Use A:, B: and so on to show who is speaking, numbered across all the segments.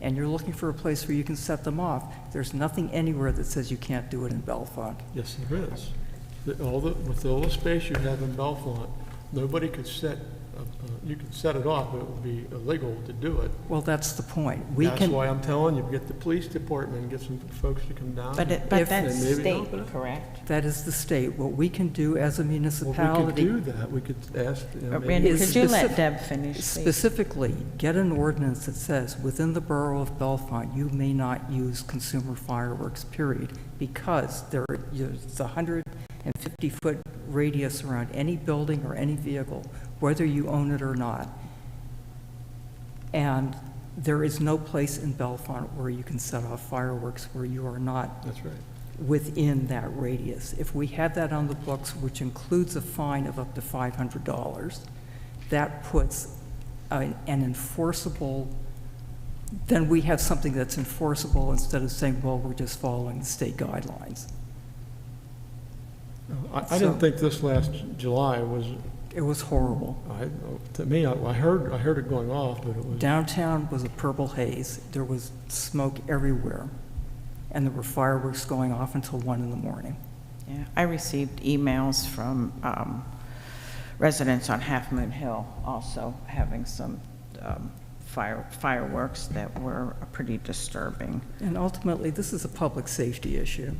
A: and you're looking for a place where you can set them off, there's nothing anywhere that says you can't do it in Bellefonte.
B: Yes, there is. The- All the, with all the space you have in Bellefonte, nobody could set, uh, uh, you could set it off, but it would be illegal to do it.
A: Well, that's the point. We
B: That's
A: can,
B: why I'm telling you, get the police department, get some folks to come down.
C: But, it-
A: If-
C: but that's
B: And maybe
C: state,
B: open it.
C: correct?
A: that is the state. What we can do as a
B: Well, we could
A: municipality
B: do that, we could ask, you know,
C: But
B: maybe,
C: Randy,
A: Is
C: could you let
A: specif-
C: Deb finish, please?
A: specifically, get an ordinance that says, within the borough of Bellefonte, you may not use consumer fireworks, period, because there, there's a hundred and fifty-foot radius around any building or any vehicle, whether you own it or not. And there is no place in Bellefonte where you can set off fireworks where you are not
B: that's right.
A: within that radius. If we had that on the books, which includes a fine of up to $500, that puts a- an enforceable, then we have something that's enforceable instead of saying, well, we're just following the state guidelines.
B: I, I didn't
A: Oh, So-
B: think this last July was,
A: It was horrible.
B: I, to me, I, I heard, I heard it going off, but it was.
A: Downtown was a purple haze. There was smoke everywhere, and there were fireworks going off until one in the morning.
C: Yeah, I received emails from um, residents on Half Moon Hill also having some um, fire fireworks that were pretty disturbing.
A: And ultimately, this is a public safety issue.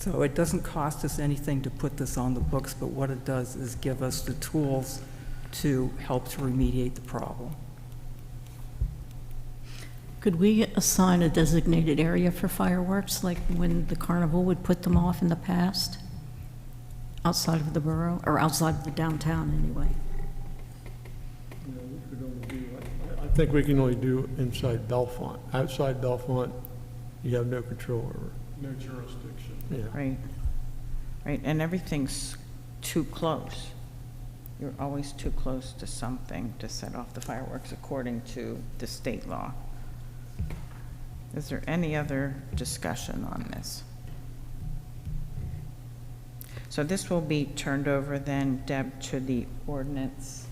A: So it doesn't cost us anything to put this on the books, but what it does is give us the tools to help to remediate the problem.
D: Could we assign a designated area for fireworks, like when the carnival would put them off in the past? Outside of the borough, or outside of the downtown, anyway?
B: I think we can only do inside Bellefonte. Outside Bellefonte, you have no control over.
E: No jurisdiction.
B: Yeah,
C: Right, right, and everything's too close. You're always too close to something to set off the fireworks according to the state law. Is there any other discussion on this? So this will be turned over then, Deb, to the ordinance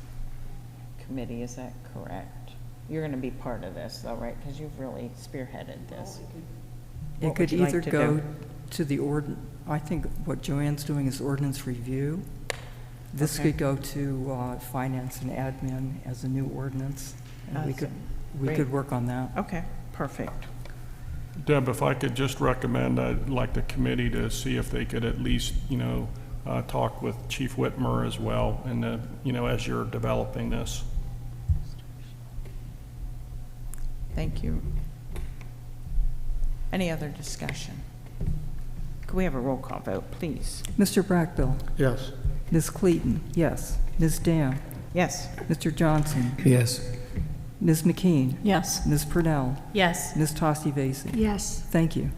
C: committee, is that correct? You're going to be part of this though, right? Because you've really spearheaded this.
A: It
C: What
A: could
C: would you like
A: either
C: to
A: go
C: do?
A: to the ord, I think what Joanne's doing is ordinance review. This
C: Okay.
A: could go to uh, finance and admin as a new ordinance, and we could,
C: Awesome.
A: we
C: Great. Oh.
A: could work on that.
C: Okay, perfect.
E: Deb, if I could just recommend, I'd like the committee to see if they could at least, you know, uh, talk with Chief Whitmer as well, and, uh, you know, as you're developing this.
C: Thank you. Any other discussion? Could we have a roll call vote, please?
A: Mr. Brackbill,
B: yes.
A: Ms. Cleaton, yes. Ms. Dam,
C: Yes,
A: Mr. Johnson,
F: Yes.
A: Ms. McKean,
D: Yes.
A: Ms. Purnell,
D: Yes.
A: Ms. Tosti Vasey.
D: Yes.
A: Thank you.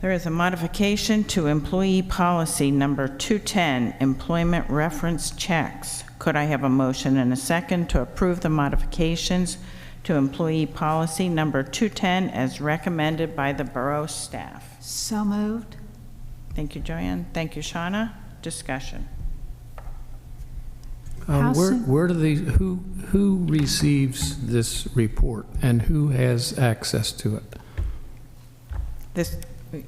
C: there is a modification to employee policy number 210, employment reference checks. Could I have a motion and a second to approve the modifications to employee policy number 210 as recommended by the borough staff?
D: So moved?
C: Thank you, Joanne. Thank you, Shauna. Discussion.
D: How
F: Um, Where,
D: soon-
F: where do these, who, who receives this report and who has access to it?
C: This,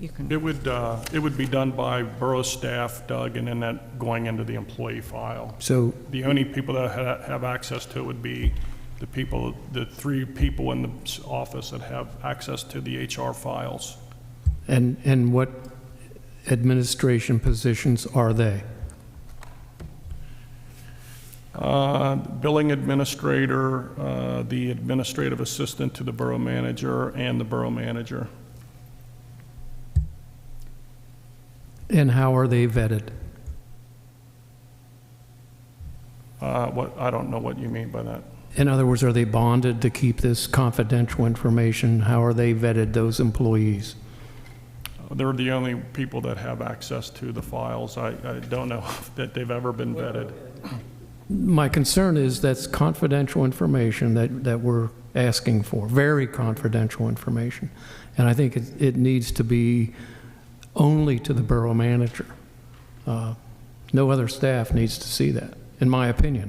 C: you can,
E: It would, uh, it would be done by borough staff, Doug, and then that going into the employee file.
F: So,
E: The only people that ha- have access to it would be the people, the three people in the s- office that have access to the HR files.
F: and, and what administration positions are they?
E: Uh, Billing administrator, uh, the administrative assistant to the borough manager, and the borough manager.
F: And how are they vetted?
E: Uh, What, I don't know what you mean by that.
F: In other words, are they bonded to keep this confidential information? How are they vetted, those employees?
E: They're the only people that have access to the files. I I don't know that they've ever been vetted.
F: My concern is that's confidential information that, that we're asking for, very confidential information. And I think it, it needs to be only to the borough manager. Uh, No other staff needs to see that, in my opinion.